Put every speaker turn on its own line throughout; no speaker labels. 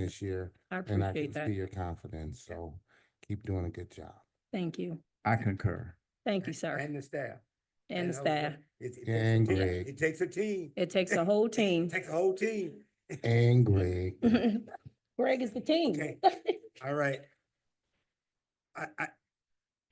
this year.
I
And I can
appreciate that.
see your confidence, so keep doing a good job.
Thank you.
I concur.
Thank you, sir,
And the staff.
and the
I was
staff.
like, It, it
And
takes a team.
Greg.
It takes a team.
It takes a whole team.
Takes a whole team.
And Greg,
Greg is the team.
Okay. All right. I, I,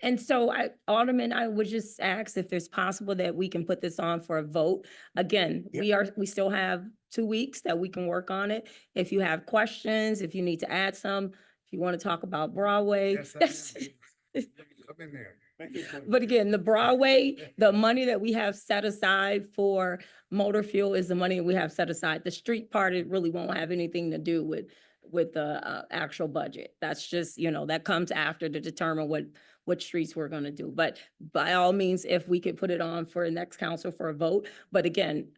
And so I, Alderman, I would just ask if it's possible that we can put this on for a vote. Again,
Yep.
we are, we still have two weeks that we can work on it. If you have questions, if you need to add some, if you want to talk about Broadway.
yes, I
that's-
am. Come in there.
But again, the Broadway, the money that we have set aside for motor fuel is the money that we have set aside. The street part, it really won't have anything to do with, with the uh, actual budget. That's just, you know, that comes after to determine what, what streets we're gonna do. But by all means, if we could put it on for the next council for a vote, but again,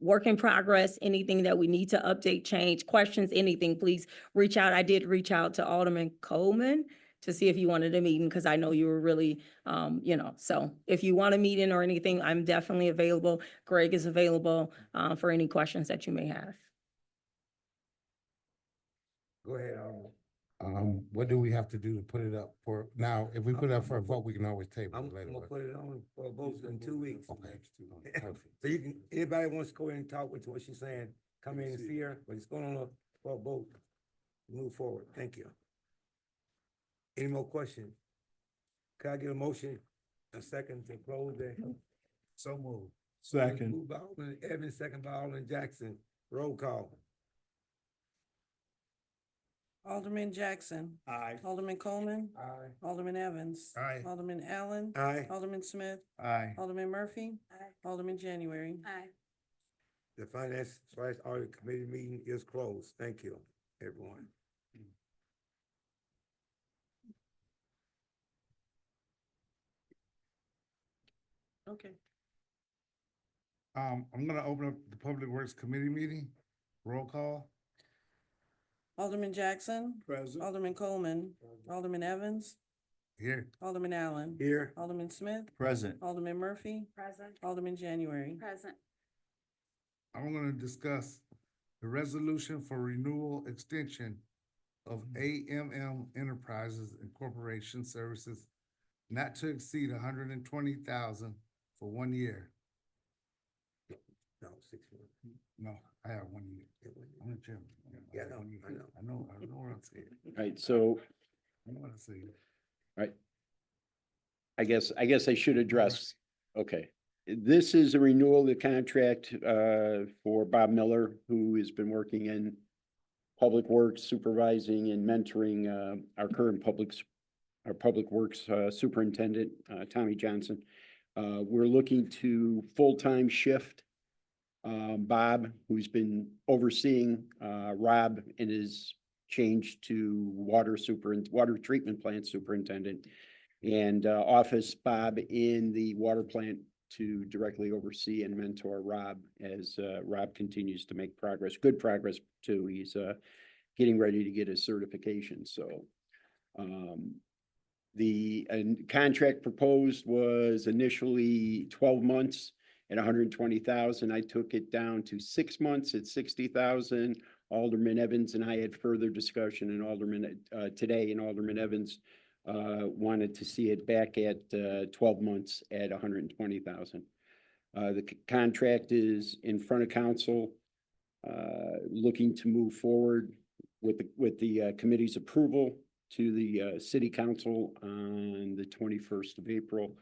work in progress, anything that we need to update, change, questions, anything, please reach out. I did reach out to Alderman Coleman to see if you wanted a meeting, because I know you were really um, you know, so if you want a meeting or anything, I'm definitely available. Greg is available, uh, for any questions that you may have.
Go ahead, Alderman.
um, what do we have to do to put it up for, now, if we put it up for a vote, we can always table
I'm,
it
I'm
later.
gonna
but-
put it on for a vote in two weeks.
Okay. Perfect.
So you can, anybody wants to go in and talk with what she's saying, come in and see her, but it's going on a, for a vote. Move forward. Thank you. Any more questions? Can I get a motion, a second to close the? So move. Moved by Alderman Evans, second by Alderman Jackson. Roll call.
Alderman Jackson.
Aye.
Alderman Coleman.
Aye.
Alderman Evans.
Aye.
Alderman Allen.
Aye.
Alderman Smith.
Aye.
Alderman Murphy. Alderman January.
The Finance slash Audit Committee meeting is closed. Thank you, everyone.
Okay.
Um, I'm gonna open up the Public Works Committee meeting. Roll call.
Alderman Jackson.
Present.
Alderman Coleman. Alderman Evans.
Here.
Alderman Allen.
Here,
Alderman Smith.
Present.
Alderman Murphy.
Present.
Alderman January.
Present.
I'm gonna discuss the resolution for renewal extension of
Mm-hmm.
AMM Enterprises and Corporation Services not to exceed hundred and twenty thousand for one year.
no, six months.
No, I have one year.
It wasn't-
I'm the chairman. I
Yeah,
have
I know,
one year.
I know.
I know, I know what I'm saying.
Right, so
I know what I'm saying.
I guess, I guess I should address, okay. This is a renewal of the contract uh, for Bob Miller, who has been working in public works supervising and mentoring uh, our current public, s- our public works uh, superintendent, uh, Tommy Johnson. Uh, We're looking to full-time shift um, Bob, who's been overseeing uh, Rob and his change to water super, water treatment plant superintendent and uh, Office Bob in the water plant to directly oversee and mentor Rob as uh, Rob continues to make progress, good progress too. He's uh, getting ready to get his certification, so. um, The and contract proposed was initially twelve months at hundred and twenty thousand. I took it down to six months at sixty thousand. Alderman Evans and I had further discussion and Alderman uh, today and Alderman Evans uh, wanted to see it back at, uh, twelve months at hundred and twenty thousand. Uh, the c- contract is in front of council, uh, looking to move forward with, the with the uh, committee's approval to the, uh, city council on the twenty-first of April.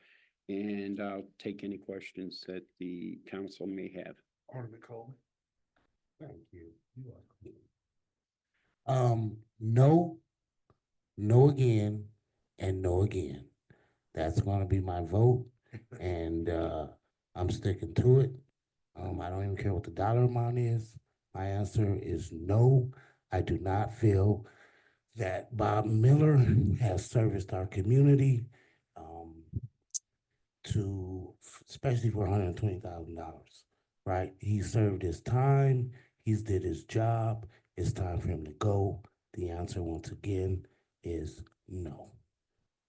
And I'll take any questions that the council may have.
Alderman Coleman.
Thank you. You are cool. Um, no, no again, and no again. That's gonna be my vote, and, uh, I'm sticking to it. Um, I don't even care what the dollar amount is. My answer is no. I do not feel that Bob Miller has serviced our community, um, to, especially for hundred and twenty thousand dollars, right? He served his time. He's did his job. It's time for him to go. The answer once again is no.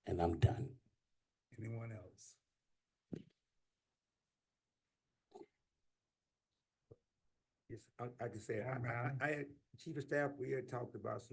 And I'm done.
Anyone else?
Yes, I, I can say, it.
Alderman
I, I, I, chief of staff, we had talked about some